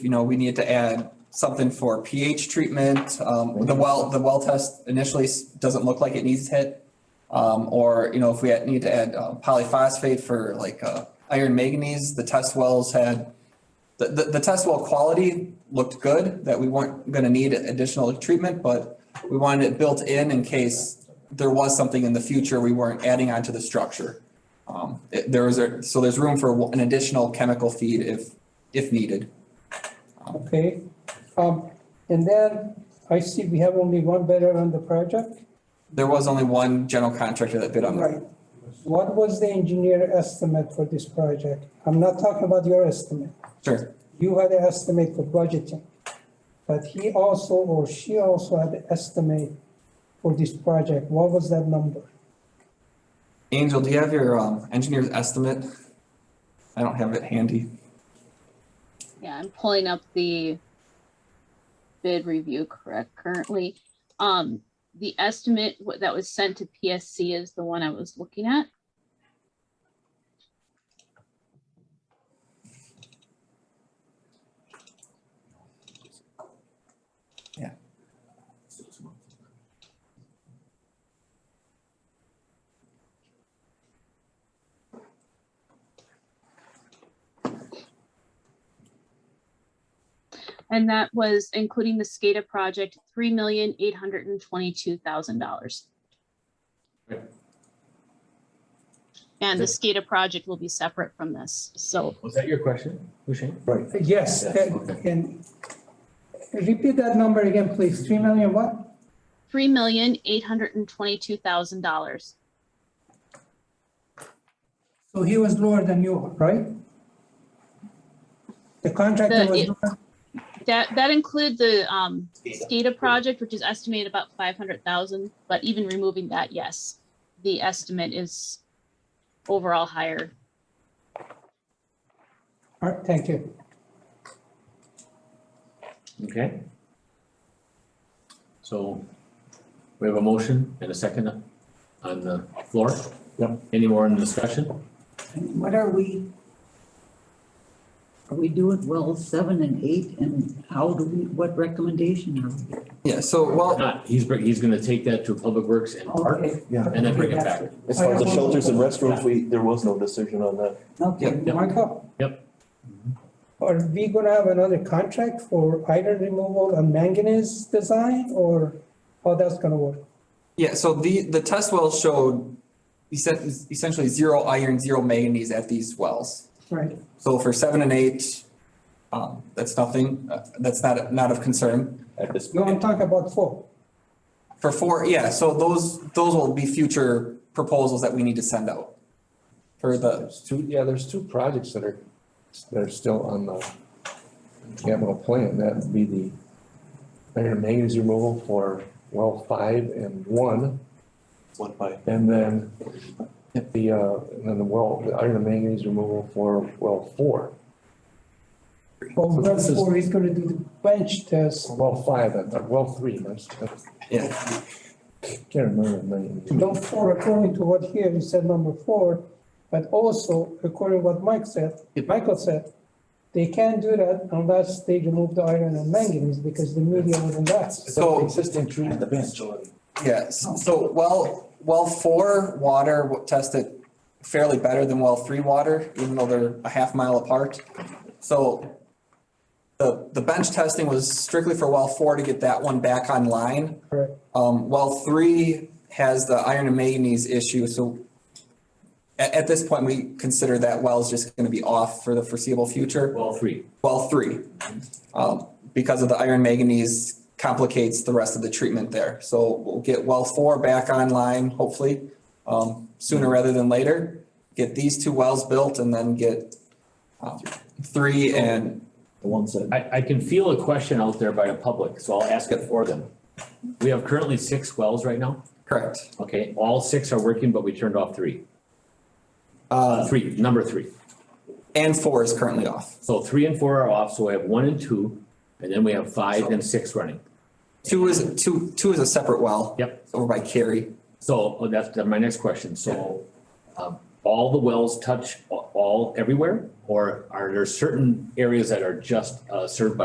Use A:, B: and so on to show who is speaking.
A: you know, we need to add something for pH treatment. Um, the well, the well test initially s- doesn't look like it needs hit. Um, or, you know, if we had- need to add uh, polyphosphate for like, uh, iron manganese, the test wells had, the, the, the test well quality looked good, that we weren't gonna need additional treatment, but we wanted it built in in case there was something in the future we weren't adding onto the structure. Um, it- there was, a- so there's room for an additional chemical feed if, if needed.
B: Okay, um, and then I see we have only one bidder on the project.
A: There was only one general contractor that bid on that.
B: What was the engineer estimate for this project? I'm not talking about your estimate.
A: Sure.
B: You had an estimate for budgeting. But he also, or she also had an estimate for this project. What was that number?
A: Angel, do you have your um, engineer's estimate? I don't have it handy.
C: Yeah, I'm pulling up the bid review correct currently. Um, the estimate wa- that was sent to PSC is the one I was looking at. And that was including the SCADA project, three million eight hundred and twenty-two thousand dollars.
D: Right.
C: And the SCADA project will be separate from this, so
D: Was that your question, Hushain?
B: Yes,
D: Yes,
B: that-
D: okay.
B: and repeat that number again, please. Three million what?
C: three million eight hundred and twenty-two thousand dollars.
B: So he was lower than you, right? The contractor
C: The-
B: was
C: it-
B: lower.
C: That, that include the, um, SCADA project, which is estimated about five hundred thousand, but even removing that, yes, the estimate is overall higher.
B: All right, thank you.
D: Okay. So we have a motion and a second on the floor. Yep. Any more in discussion?
E: And What are we? Are we doing well seven and eight and how do we, what recommendation are we?
A: Yeah, so
D: If
A: well,
D: Not, he's, br- he's gonna take that to Public Works and Park
E: Okay,
F: Yeah.
D: and then bring it back.
F: As far as the shelters and restrooms, we, there was no decision on that.
E: Okay, Oh,
D: Yep.
B: Michael?
D: Yep.
B: Are we gonna have another contract for iron removal and manganese design or how that's gonna work?
A: yeah, so the, the test wells showed essen- essentially zero iron, zero manganese at these wells.
B: Right.
A: So for seven and eight, um, that's nothing, uh, that's not, not of concern.
F: At this,
B: No, I'm talking about four.
A: For four, yeah, so those, those will be future proposals that we need to send out. For the,
G: There's two, yeah, there's two projects that are, that are still on the capital plan, that would be the iron manganese removal for well five and one,
F: one by,
G: and then the, uh, and then the well, the iron manganese removal for well four,
B: Well,
G: So
B: that's
G: this is-
B: four, he's gonna do the bench test.
G: or well five, and- or well three, that's, that's,
A: yeah,
G: can't remember the name.
B: Don't four, according to what here, he said number four, but also according to what Mike said, Michael said, they can't do that unless they remove the iron and manganese because the media wouldn't last.
A: So-
G: Existing tree at the bench.
A: Yes, so well, well four water w- tested fairly better than well three water, even though they're a half mile apart. So the, the bench testing was strictly for well four to get that one back online.
B: Correct.
A: Um, well three has the iron and manganese issue, so at, at this point, we consider that well is just gonna be off for the foreseeable future.
D: Well, three.
A: Well three, um, because of the iron manganese complicates the rest of the treatment there. So we'll get well four back online, hopefully, um, sooner rather than later. Get these two wells built and then get, um, three and,
F: the ones that.
D: I, I can feel a question out there by the public, so I'll ask it for them. We have currently six wells right now.
A: correct.
D: Okay, all six are working, but we turned off three.
A: Uh,
D: Three, number three.
A: and four is currently off.
D: So three and four are off, so we have one and two, and then we have five and six running.
A: Two is, two, two is a separate well.
D: Yep.
A: Over by Cary.
D: So oh, that's that's my next question. So um, all the wells touch a- all everywhere Or are there certain areas that are just uh, served by